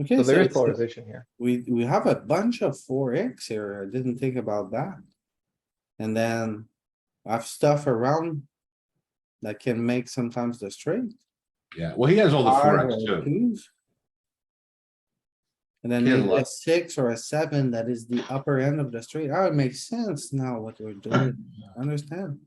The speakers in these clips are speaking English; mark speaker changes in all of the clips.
Speaker 1: Okay,
Speaker 2: So
Speaker 1: so
Speaker 2: there is
Speaker 1: it's-
Speaker 2: polarization here.
Speaker 1: we, we have a bunch of four X here. I didn't think about that. And then I've stuff around that can make sometimes the straight.
Speaker 3: Yeah, well, he has all the four
Speaker 1: Five
Speaker 3: X
Speaker 1: or
Speaker 3: too.
Speaker 1: twos. And then
Speaker 3: He has a
Speaker 1: maybe
Speaker 3: lot.
Speaker 1: a six or a seven, that is the upper end of the straight. Oh, it makes sense now what we're doing. I Understand?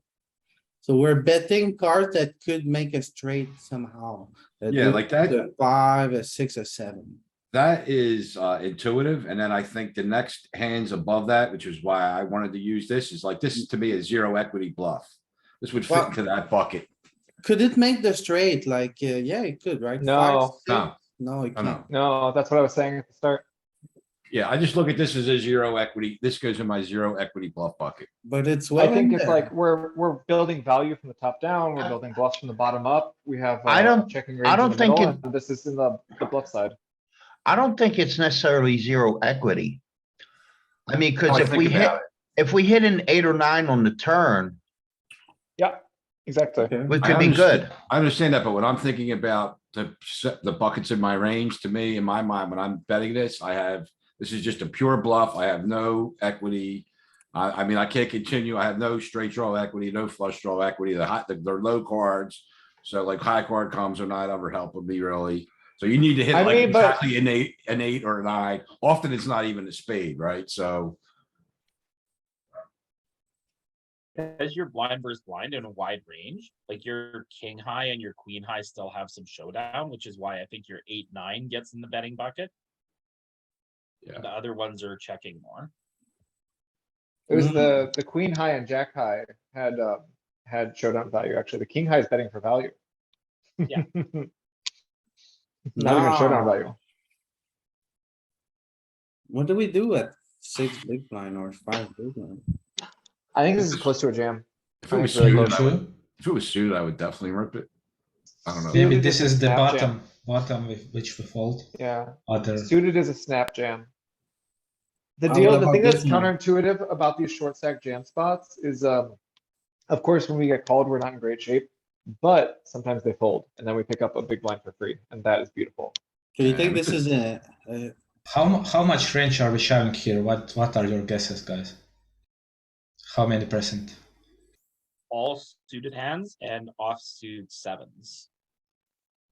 Speaker 1: So we're betting cards that could make a straight somehow. that
Speaker 3: Yeah,
Speaker 1: would
Speaker 3: like
Speaker 1: be
Speaker 3: that,
Speaker 1: the Five, a six, a seven.
Speaker 3: that is uh intuitive. And then I think the next hands above that, which is why I wanted to use this, is like, this is to me a zero equity bluff. This would fit
Speaker 1: Well-
Speaker 3: into that bucket.
Speaker 1: Could it make the straight? Like, uh, yeah, it could, right?
Speaker 2: No.
Speaker 1: Five,
Speaker 3: No,
Speaker 1: six? No, it
Speaker 3: no, no.
Speaker 1: can't.
Speaker 2: No, that's what I was saying at the start.
Speaker 3: Yeah, I just look at this as a zero equity. This goes in my zero equity bluff bucket.
Speaker 1: But it's well
Speaker 2: I
Speaker 1: in
Speaker 2: think it's
Speaker 1: there.
Speaker 2: like, we're, we're building value from the top down, we're building bluffs from the bottom up, we have.
Speaker 4: I
Speaker 2: uh,
Speaker 4: don't-
Speaker 2: Checking
Speaker 4: I
Speaker 2: range in
Speaker 4: don't
Speaker 2: the
Speaker 4: think
Speaker 2: middle,
Speaker 4: it-
Speaker 2: and this is in the the bluff side.
Speaker 4: I don't think it's necessarily zero equity. I mean,
Speaker 3: Now
Speaker 4: cause
Speaker 3: Oh, I
Speaker 4: if
Speaker 3: think
Speaker 4: we hit,
Speaker 3: about
Speaker 4: if we hit an eight or nine on the turn,
Speaker 2: Yeah, exactly.
Speaker 1: Okay.
Speaker 4: we
Speaker 3: I
Speaker 4: could be
Speaker 3: understand.
Speaker 4: good.
Speaker 3: I understand that, but when I'm thinking about the, s- the buckets in my range, to me, in my mind, when I'm betting this, I have, this is just a pure bluff. I have no equity. I, I mean, I can't continue. I have no straight draw equity, no flush draw equity, the high, the, the low cards. So like high card comes are not ever helping me really. So you need to hit
Speaker 2: I
Speaker 3: like
Speaker 2: mean, but-
Speaker 3: exactly an eight, an eight or a nine. Often it's not even a spade, right? So,
Speaker 5: Because you're blind versus blind in a wide range, like your king high and your queen high still have some showdown, which is why I think your eight, nine gets in the betting bucket.
Speaker 3: Yeah.
Speaker 5: The other ones are checking more.
Speaker 2: It was
Speaker 1: Mm.
Speaker 2: the, the queen high and jack high had, uh, had showdown value, actually, the king high is betting for value.
Speaker 5: Yeah.
Speaker 2: Not even showdown
Speaker 1: Nah.
Speaker 2: value.
Speaker 1: What do we do at six big blind or five big blind?
Speaker 2: I think this is close to a jam.
Speaker 3: if it was
Speaker 2: Alright,
Speaker 3: suited,
Speaker 2: so-
Speaker 3: I would- if it was suited, I would definitely rip it. I don't know.
Speaker 6: Maybe
Speaker 2: Suited
Speaker 6: this is the
Speaker 2: snap jam.
Speaker 6: bottom, bottom with which we fold.
Speaker 2: Yeah,
Speaker 6: Other,
Speaker 2: suited is a snap jam. The
Speaker 1: Uh,
Speaker 2: deal,
Speaker 1: what
Speaker 2: the thing
Speaker 1: about
Speaker 2: that's
Speaker 1: this one?
Speaker 2: counterintuitive about these short stack jam spots is, um, of course, when we get called, we're not in great shape, but sometimes they fold and then we pick up a big blind for free and that is beautiful.
Speaker 1: Do you
Speaker 3: Yeah,
Speaker 1: think
Speaker 3: we
Speaker 1: this is
Speaker 3: could-
Speaker 1: a, a-
Speaker 6: how, mu- how much range are we shoving here? What, what are your guesses, guys? How many percent?
Speaker 5: All suited hands and offsuit sevens.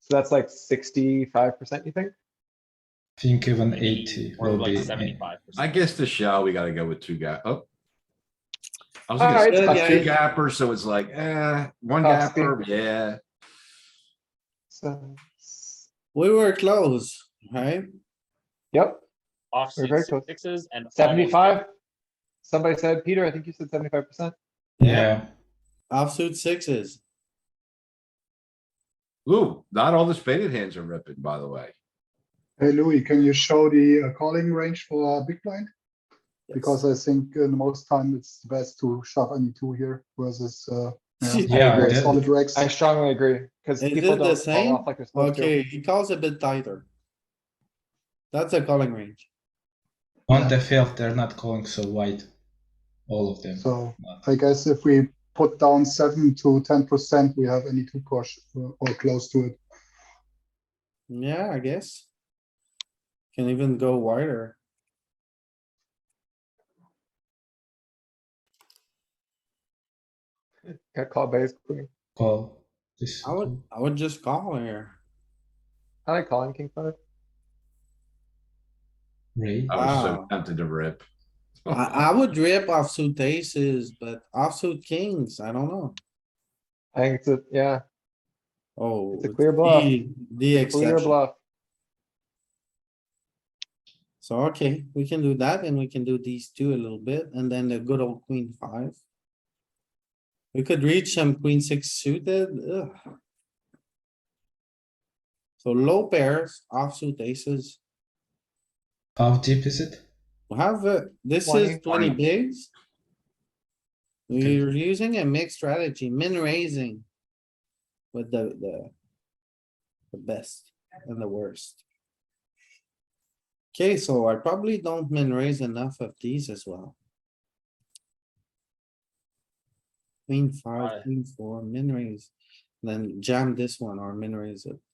Speaker 2: So that's like sixty-five percent, you think?
Speaker 6: I think even
Speaker 5: Maybe
Speaker 6: eighty
Speaker 5: Or
Speaker 6: will
Speaker 5: like
Speaker 6: be.
Speaker 5: seventy-five
Speaker 3: I
Speaker 5: percent.
Speaker 3: guess the shell, we gotta go with two gap, oh. I was
Speaker 2: Alright,
Speaker 3: gonna
Speaker 1: it's
Speaker 3: say two
Speaker 1: fine.
Speaker 3: gapper, so it's like, eh, one
Speaker 2: Tough speed.
Speaker 3: gapper, yeah.
Speaker 2: So,
Speaker 1: we were close, right?
Speaker 2: yep, We're very
Speaker 5: Offsuit
Speaker 2: close.
Speaker 5: sixes and. almost
Speaker 2: seventy-five. Somebody said, Peter, I think you said seventy-five percent.
Speaker 6: Yeah,
Speaker 1: Offsuit sixes.
Speaker 3: Ooh, not all the spaded hands are ripping, by the way.
Speaker 7: Hey Louis, can you show the uh, calling range for uh, big blind?
Speaker 1: Yes.
Speaker 7: Because I think in most time it's best to shove any two here versus uh,
Speaker 6: Yeah,
Speaker 7: very
Speaker 6: yeah.
Speaker 7: solid racks.
Speaker 2: I strongly agree, cause
Speaker 1: Is
Speaker 2: people
Speaker 1: it the
Speaker 2: don't
Speaker 1: same?
Speaker 2: fall off like they're supposed to.
Speaker 1: Okay, he calls a bit tighter. That's a calling range.
Speaker 6: on the field, they're not going so wide, all of them.
Speaker 7: So
Speaker 6: But-
Speaker 7: I guess if we put down seven to ten percent, we have any two push uh, or close to it.
Speaker 1: Yeah, I guess. Can even go wider.
Speaker 2: Got called by his queen.
Speaker 6: Call this.
Speaker 1: I would, I would just call here.
Speaker 2: I like calling king five.
Speaker 6: Ray,
Speaker 3: I was so
Speaker 1: Wow.
Speaker 3: tempted to rip.
Speaker 1: I, I would rip offsuit aces, but offsuit kings, I don't know.
Speaker 2: I think it's a, yeah,
Speaker 1: Oh.
Speaker 2: It's a clear bluff.
Speaker 1: the- The
Speaker 2: clear
Speaker 1: exception.
Speaker 2: bluff.
Speaker 1: So, okay, we can do that and we can do these two a little bit and then the good old queen five. We could reach some queen six suited. ugh. So low pairs, offsuit aces.
Speaker 6: how deep is it?
Speaker 1: We have, uh, this is
Speaker 2: 20.
Speaker 1: twenty bigs.
Speaker 6: Okay.
Speaker 1: We're using a mixed strategy, min raising. With the, the. The best and the worst. Okay, so I probably don't min raise enough of these as well. Queen
Speaker 5: Aye.
Speaker 1: five, queen four, min raise, then jam this one or min raise it.